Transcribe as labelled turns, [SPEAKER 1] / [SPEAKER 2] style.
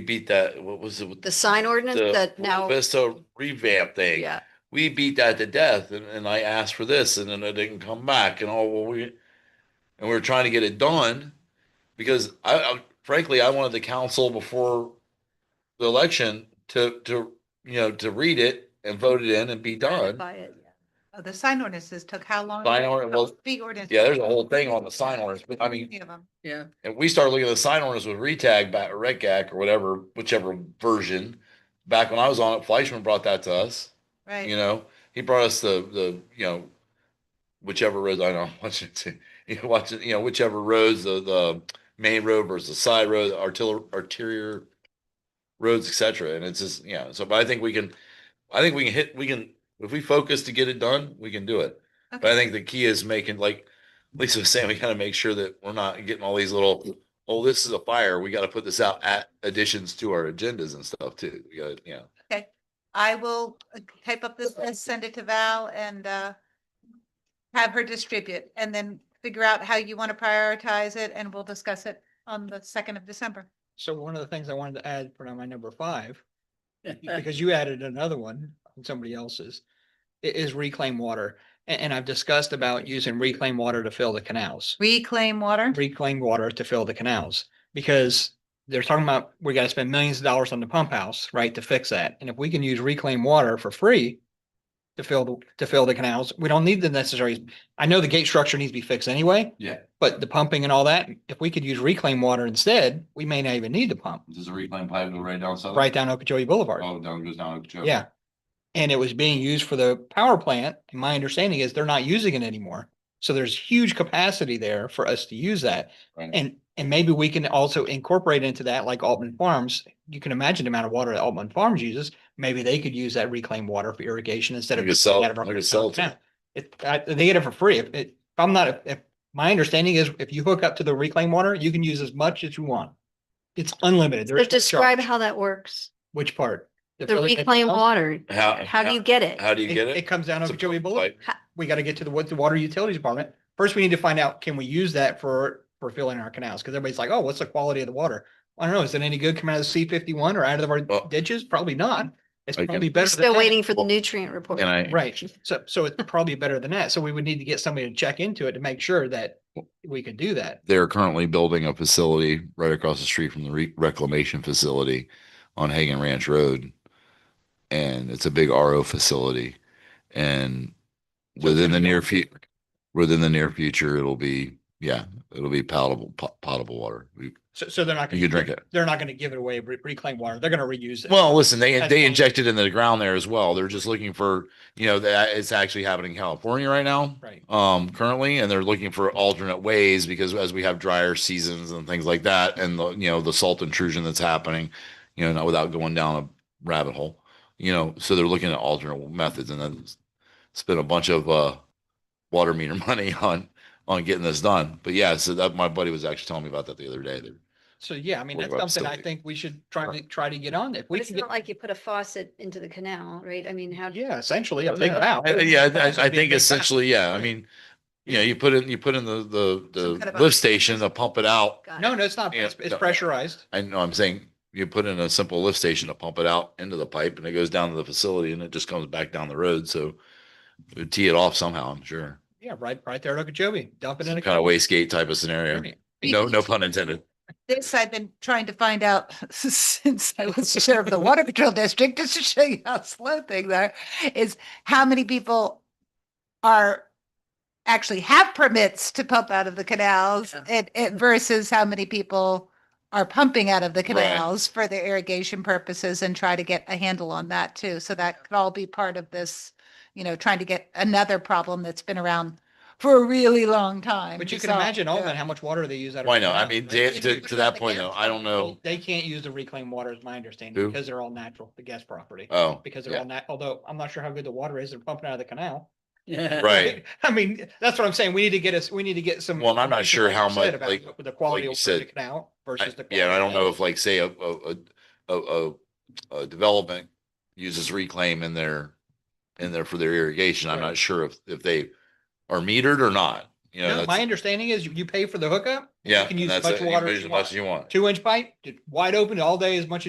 [SPEAKER 1] We beat that, what was it?
[SPEAKER 2] The sign ordinance that now,
[SPEAKER 1] Vista revamp thing.
[SPEAKER 2] yeah,
[SPEAKER 1] We beat that to death and, and I asked for this and then it didn't come back and all, well, we, and we were trying to get it done. Because I, I frankly, I wanted the council before the election to, to, you know, to read it and vote it in and be done.
[SPEAKER 2] by it.
[SPEAKER 3] Oh, the sign ordinances took how long?
[SPEAKER 1] Sign ordinance, well,
[SPEAKER 3] Fee ordinance.
[SPEAKER 1] yeah, there's a whole thing on the sign ordinance, but I mean,
[SPEAKER 3] Many of them.
[SPEAKER 4] Yeah,
[SPEAKER 1] And we started looking at the sign ordinance with retag back or retgac or whatever, whichever version. Back when I was on it, Fleischman brought that to us, you
[SPEAKER 3] Right.
[SPEAKER 1] know, he brought us the, the, you know, whichever roads, I know, watching, you know, watching, you know, whichever roads, the, the main road versus the side road, arterial, arterial roads, et cetera. And it's just, you know, so, but I think we can, I think we can hit, we can, if we focus to get it done, we can do it. But I think the key is making like Lisa was saying, we gotta make sure that we're not getting all these little, oh, this is a fire. We gotta put this out at additions to our agendas and stuff too. We gotta, you know.
[SPEAKER 3] I will uh, type up this list, send it to Val and uh, have her distribute and then figure out how you want to prioritize it and we'll discuss it on the second of December.
[SPEAKER 5] So one of the things I wanted to add for my number five, because you added another one on somebody else's, i- is reclaim water. A- And, I've discussed about using reclaimed water to fill the canals,
[SPEAKER 3] Reclaim water.
[SPEAKER 5] reclaimed water to fill the canals. Because they're talking about, we gotta spend millions of dollars on the pump house, right, to fix that. And if we can use reclaimed water for free to fill, the- to fill the canals, we don't need the necessary, I know the gate structure needs to be fixed anyway.
[SPEAKER 6] Yeah.
[SPEAKER 5] But the pumping and all that, if we could use reclaimed water instead, we may not even need the pump.
[SPEAKER 6] Does a reclaim pipe go right down south?
[SPEAKER 5] right down Okeechobee Boulevard.
[SPEAKER 6] Oh, down goes down. Okeechobee.
[SPEAKER 5] Yeah. And it was being used for the power plant. And my understanding is they're not using it anymore. So there's huge capacity there for us to use that.
[SPEAKER 6] Right.
[SPEAKER 5] And, and maybe we can also incorporate into that, like Altman Farms. You can imagine the amount of water that Altman Farms uses. Maybe they could use that reclaimed water for irrigation instead
[SPEAKER 1] We
[SPEAKER 5] of.
[SPEAKER 1] could sell-
[SPEAKER 5] out of our-
[SPEAKER 1] we could sell it to
[SPEAKER 5] Yeah. It, I, they get it for free. If, it- if I'm not, if- if, my understanding is if you hook up to the reclaimed water, you can use as much as you want. It's unlimited. There
[SPEAKER 2] So
[SPEAKER 5] is no
[SPEAKER 2] describe
[SPEAKER 5] charge.
[SPEAKER 2] how that works.
[SPEAKER 5] Which part?
[SPEAKER 2] The reclaim water,
[SPEAKER 1] How,
[SPEAKER 2] how do you get it?
[SPEAKER 1] How do you
[SPEAKER 5] It,
[SPEAKER 1] get
[SPEAKER 5] it
[SPEAKER 1] it?
[SPEAKER 5] comes down
[SPEAKER 1] It's a
[SPEAKER 5] over Joey Boulevard.
[SPEAKER 1] pipe.
[SPEAKER 5] We gotta get to the, wa- the water utilities department. First, we need to find out, can we use that for, for filling our canals? Cause everybody's like, oh, what's the quality of the water? I don't know. Is it any good coming out of C fifty-one or out of
[SPEAKER 1] Well-
[SPEAKER 5] our ditches? Probably not. It's
[SPEAKER 1] I can-
[SPEAKER 5] probably
[SPEAKER 2] We're
[SPEAKER 5] better. than
[SPEAKER 2] still
[SPEAKER 5] that.
[SPEAKER 2] waiting for the nutrient report.
[SPEAKER 1] And I,
[SPEAKER 5] Right. So, so it's probably better than that. So we would need to get somebody to check into it to make sure that we could do that.
[SPEAKER 1] they're currently building a facility right across the street from the re- reclamation facility on Hagan Ranch Road. And it's a big RO facility. And
[SPEAKER 5] it's
[SPEAKER 1] within
[SPEAKER 5] gonna
[SPEAKER 1] the
[SPEAKER 5] be
[SPEAKER 1] near
[SPEAKER 5] on
[SPEAKER 1] future, within the near future, it'll be, yeah, it'll be palatable, po- potable water. You
[SPEAKER 5] So, so they're not.
[SPEAKER 1] you
[SPEAKER 5] gonna
[SPEAKER 1] can drink it.
[SPEAKER 5] They're not gonna give it away, re- reclaim water. They're gonna reuse it.
[SPEAKER 1] Well, listen, they,
[SPEAKER 5] That's
[SPEAKER 1] they
[SPEAKER 5] fine.
[SPEAKER 1] injected into the ground there as well. They're just looking for, you know, that it's actually happening in California right now.
[SPEAKER 5] Right.
[SPEAKER 1] Um, currently, and they're looking for alternate ways because as we have drier seasons and things like that, and the, you know, the salt intrusion that's happening, you know, not without going down a rabbit hole, you know, so they're looking at alternate methods and then spend a bunch of, uh, water meter money on, on getting this done. But yeah, so that, my buddy was actually telling me about that the other day.
[SPEAKER 5] So, yeah, I mean,
[SPEAKER 1] What
[SPEAKER 5] that's
[SPEAKER 1] about
[SPEAKER 5] something I
[SPEAKER 1] facility?
[SPEAKER 5] think we should try to, try to get on. If
[SPEAKER 2] But
[SPEAKER 5] we
[SPEAKER 2] It's
[SPEAKER 5] can get.
[SPEAKER 2] not like you put a faucet into the canal, right? I mean, how, do
[SPEAKER 5] Yeah, essentially a big
[SPEAKER 1] Yeah,
[SPEAKER 5] valve.
[SPEAKER 1] I- yeah, I-
[SPEAKER 5] It's
[SPEAKER 1] I, I
[SPEAKER 5] a
[SPEAKER 1] think
[SPEAKER 5] big, big valve.
[SPEAKER 1] essentially, yeah, I mean, you know, you put in, you put in the, the,
[SPEAKER 3] Some kind
[SPEAKER 1] the
[SPEAKER 3] of a-
[SPEAKER 1] lift station to pump it out.
[SPEAKER 2] got
[SPEAKER 5] No,
[SPEAKER 2] it.
[SPEAKER 5] no, it's not.
[SPEAKER 1] Yeah,
[SPEAKER 5] It's it's
[SPEAKER 1] no.
[SPEAKER 5] pressurized.
[SPEAKER 1] I know, I'm saying you put in a simple lift station to pump it out into the pipe and it goes down to the facility and it just comes back down the road. So it would tee it off somehow, I'm sure.
[SPEAKER 5] Yeah, right, right there at Okeechobee, dump it in
[SPEAKER 1] Some
[SPEAKER 5] a.
[SPEAKER 1] kind of wastegate type of scenario.
[SPEAKER 5] container.
[SPEAKER 1] No, no pun intended.
[SPEAKER 3] This I've been trying to find out since I was the chair of the Water Patrol District, just to show you how slow things are, is how many people are actually have permits to pump out of the canals
[SPEAKER 4] Yeah.
[SPEAKER 3] and, and versus how many people are pumping out of the canals for their irrigation purposes and try to get a handle on that too. So that could all be part of this, you know, trying to get another problem that's been around for a really long time.
[SPEAKER 5] But you
[SPEAKER 3] to
[SPEAKER 5] can
[SPEAKER 3] solve.
[SPEAKER 5] imagine
[SPEAKER 3] Yeah.
[SPEAKER 5] all that, how much water they use out of.
[SPEAKER 1] Why not? I
[SPEAKER 5] canals,
[SPEAKER 1] mean,
[SPEAKER 5] right?
[SPEAKER 1] to,
[SPEAKER 5] If
[SPEAKER 1] to,
[SPEAKER 5] you
[SPEAKER 1] to
[SPEAKER 5] put
[SPEAKER 1] that
[SPEAKER 5] the
[SPEAKER 1] point
[SPEAKER 5] gas
[SPEAKER 1] though, I don't
[SPEAKER 5] property,
[SPEAKER 1] know.
[SPEAKER 5] They can't use the reclaimed water is my
[SPEAKER 1] Who?
[SPEAKER 5] understanding because they're all natural, the gas property.
[SPEAKER 1] Oh,
[SPEAKER 5] Because they're
[SPEAKER 1] yeah.
[SPEAKER 5] all nat, although I'm not sure how good the water is, they're pumping out of the canal.
[SPEAKER 4] yeah.
[SPEAKER 1] Oh, right.
[SPEAKER 5] I mean, that's what I'm saying. We need to get us, we need to get some.
[SPEAKER 1] Well, and I'm not sure how much,
[SPEAKER 5] said about
[SPEAKER 1] like-
[SPEAKER 5] what The quality
[SPEAKER 1] you
[SPEAKER 5] of
[SPEAKER 1] said,
[SPEAKER 5] the canal
[SPEAKER 1] I-
[SPEAKER 5] versus the.
[SPEAKER 1] Yeah, and I don't
[SPEAKER 5] quality
[SPEAKER 1] know
[SPEAKER 5] of-
[SPEAKER 1] if like, say, a, a, a, a, a- a development uses reclaim in their, in there for their irrigation. I'm
[SPEAKER 5] Right.
[SPEAKER 1] not sure if, if they are metered or not, you know,
[SPEAKER 5] No, My
[SPEAKER 1] that's,
[SPEAKER 5] understanding is you- you pay for the hookup.
[SPEAKER 1] yeah.
[SPEAKER 5] can
[SPEAKER 1] and
[SPEAKER 5] use as
[SPEAKER 1] that's
[SPEAKER 5] much
[SPEAKER 1] it. You can
[SPEAKER 5] water
[SPEAKER 1] use As
[SPEAKER 5] as you
[SPEAKER 1] much
[SPEAKER 5] want.
[SPEAKER 1] as you want.
[SPEAKER 5] two inch pipe, just wide open all day as much as